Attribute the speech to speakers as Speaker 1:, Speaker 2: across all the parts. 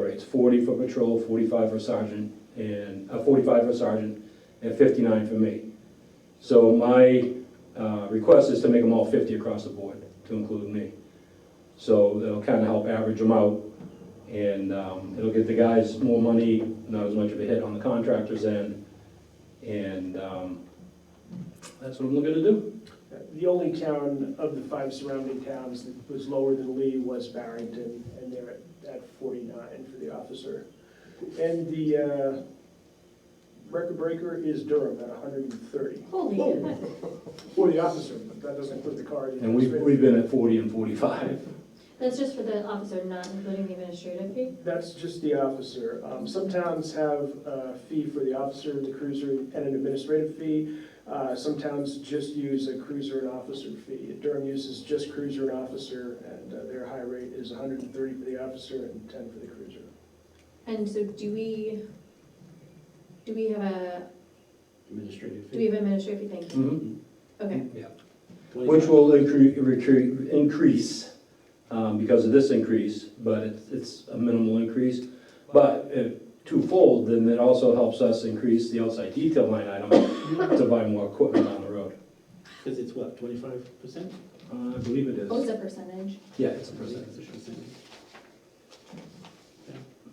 Speaker 1: rates, forty for patrol, forty-five for sergeant, and, uh, forty-five for sergeant, and fifty-nine for me. So my, uh, request is to make them all fifty across the board, to include me. So that'll kinda help average them out, and, um, it'll get the guys more money, not as much of a hit on the contractor's end, and, um, that's what I'm looking to do.
Speaker 2: The only town of the five surrounding towns that was lower than Lee was Barrington, and they're at- at 49 for the officer. And the uh, record breaker is Durham at 130
Speaker 3: Holy
Speaker 2: Whoa.
Speaker 3: cow.
Speaker 2: for the officer, but that doesn't include the car.
Speaker 1: And we've, we've been at forty and forty-five.
Speaker 3: That's just for the officer, not including the administrative fee?
Speaker 2: That's just the officer. Um, Some towns have a fee for the officer, the cruiser, and an administrative fee. Uh, Some towns just use a cruiser and officer fee. Durham uses just cruiser and officer, and uh, their high rate is 130 for the officer and 10 for the cruiser.
Speaker 3: And so do we, do we have a,
Speaker 4: Administrative
Speaker 3: do we have an administrative fee? Thank you.
Speaker 1: Mhm.
Speaker 3: Okay,
Speaker 1: Which will incre- recre- increase um, because of this increase, but it's- it's a minimal increase. But if twofold, then it also helps us increase the outside detail line item to buy more equipment on the road.
Speaker 4: Because it's what, twenty-five percent?
Speaker 1: Uh, I believe it
Speaker 3: what was
Speaker 1: is.
Speaker 3: the percentage?
Speaker 1: Yeah, it's a percentage.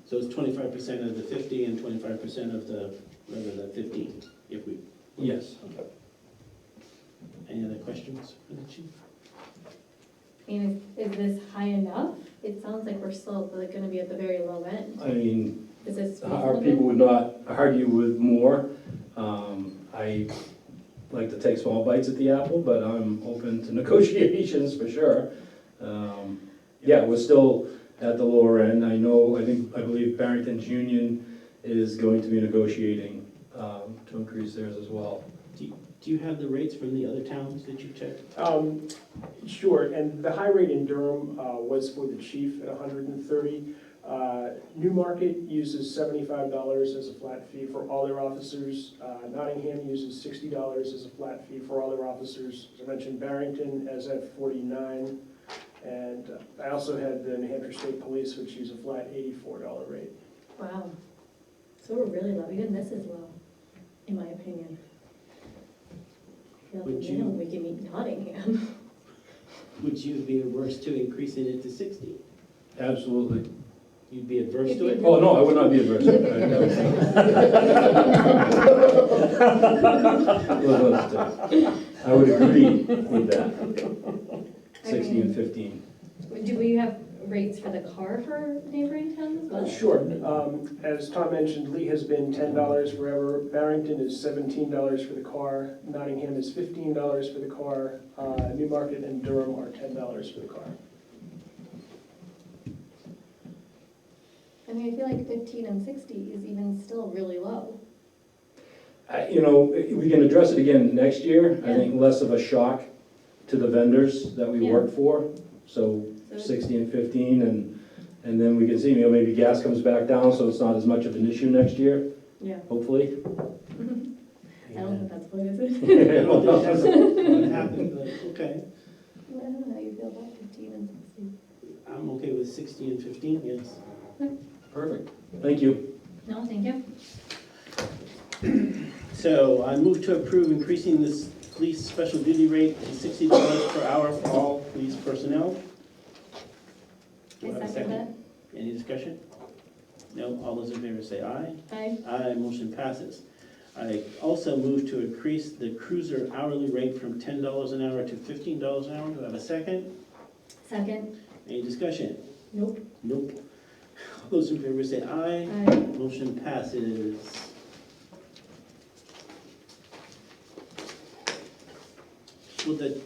Speaker 4: So it's twenty-five percent of the fifty and twenty-five percent of the, rather the fifteen, if we,
Speaker 1: Yes.
Speaker 4: any other questions for the chief?
Speaker 3: I mean, is, is this high enough? It sounds like we're still like gonna be at the very low end.
Speaker 1: I mean,
Speaker 3: Is this
Speaker 1: Uh, our people
Speaker 3: reasonable?
Speaker 1: would not argue with more. Um, I like to take small bites at the apple, but I'm open to negotiations for sure. Um, Yeah, we're still at the lower end. I know, I think, I believe Barrington's union is going to be negotiating um, to increase theirs as well.
Speaker 4: Do you have the rates from the other towns that you checked?
Speaker 2: Um, Sure, and the high rate in Durham uh, was for the chief at 130. Uh, Newmarket uses $75 as a flat fee for all their officers. Uh, Nottingham uses $60 as a flat fee for all their officers. As I mentioned, Barrington as at 49. And uh, I also had the New Hampshire State Police, which use a flat $84 rate.
Speaker 3: Wow. So we're really low, even this is low, in my opinion. I feel like
Speaker 4: Would you-
Speaker 3: now We can meet Nottingham.
Speaker 4: Would you be averse to increasing it to sixty?
Speaker 1: Absolutely.
Speaker 4: You'd be adverse
Speaker 3: If
Speaker 4: to
Speaker 3: you-
Speaker 4: it?
Speaker 1: Oh, no, I would not be adverse. I would agree with that,
Speaker 3: I
Speaker 1: 60 and
Speaker 3: mean,
Speaker 1: 15.
Speaker 3: Do we have rates for the car for neighboring towns as well?
Speaker 2: Sure. Um, As Tom mentioned, Lee has been ten dollars forever. Barrington is seventeen dollars for the car. Nottingham is fifteen dollars for the car. Uh, Newmarket and Durham are ten dollars for the car.
Speaker 3: I mean, I feel like fifteen and sixty is even still really low.
Speaker 1: I- You know, we can address it again next year. I
Speaker 3: Yeah.
Speaker 1: think less of a shock to the vendors that we
Speaker 3: Yeah.
Speaker 1: work for. So
Speaker 3: So
Speaker 1: 60 and 15, and, and then we can see, you know, maybe gas comes back down, so it's not as much of an issue next year,
Speaker 3: Yeah,
Speaker 1: hopefully.
Speaker 3: I don't think that's what it is.
Speaker 1: I
Speaker 4: I don't think
Speaker 1: don't
Speaker 4: that's gonna happen, but, okay,
Speaker 3: I don't know how you feel about fifteen and sixty.
Speaker 4: I'm okay with sixty and fifteen, yes.
Speaker 1: Perfect. Thank you.
Speaker 3: No, thank you.
Speaker 4: So I move to approve increasing this police special duty rate to sixty dollars per hour for all police personnel. Do I have
Speaker 3: I
Speaker 4: a
Speaker 3: second that.
Speaker 4: Any discussion? No, all those in favor say aye.
Speaker 3: Aye.
Speaker 4: Aye, motion passes. I also move to increase the cruiser hourly rate from ten dollars an hour to fifteen dollars an hour. Do I have a second?
Speaker 3: Second.
Speaker 4: Any discussion?
Speaker 3: Nope.
Speaker 4: Nope. All those in favor say aye.
Speaker 3: Aye.
Speaker 4: Motion passes. Will the,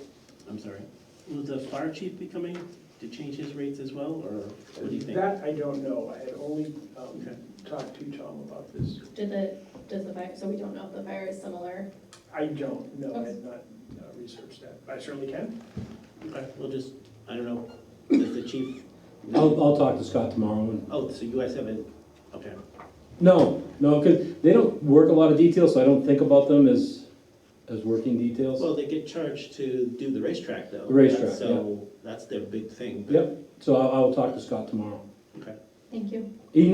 Speaker 4: I'm sorry, will the fire chief be coming to change his rates as well, or what do you think?
Speaker 2: That I don't know. I had only um,
Speaker 4: Okay.
Speaker 2: talked to Tom about this.
Speaker 3: Did the, does the fire, so we don't know if the fire is similar.
Speaker 2: I don't know. I had not uh, researched that. I certainly can.
Speaker 4: Okay, we'll just, I don't know, does the chief?
Speaker 1: I'll, I'll talk to Scott tomorrow. and-
Speaker 4: Oh, so you guys haven't, okay,
Speaker 1: No, no, because they don't work a lot of details, so I don't think about them as, as working details.
Speaker 4: well, they get charged to do the racetrack though.
Speaker 1: The racetrack,
Speaker 4: That's- So that's their big thing. but-
Speaker 1: Yep, so I'll, I'll talk to Scott tomorrow.
Speaker 4: Okay.
Speaker 3: Thank you.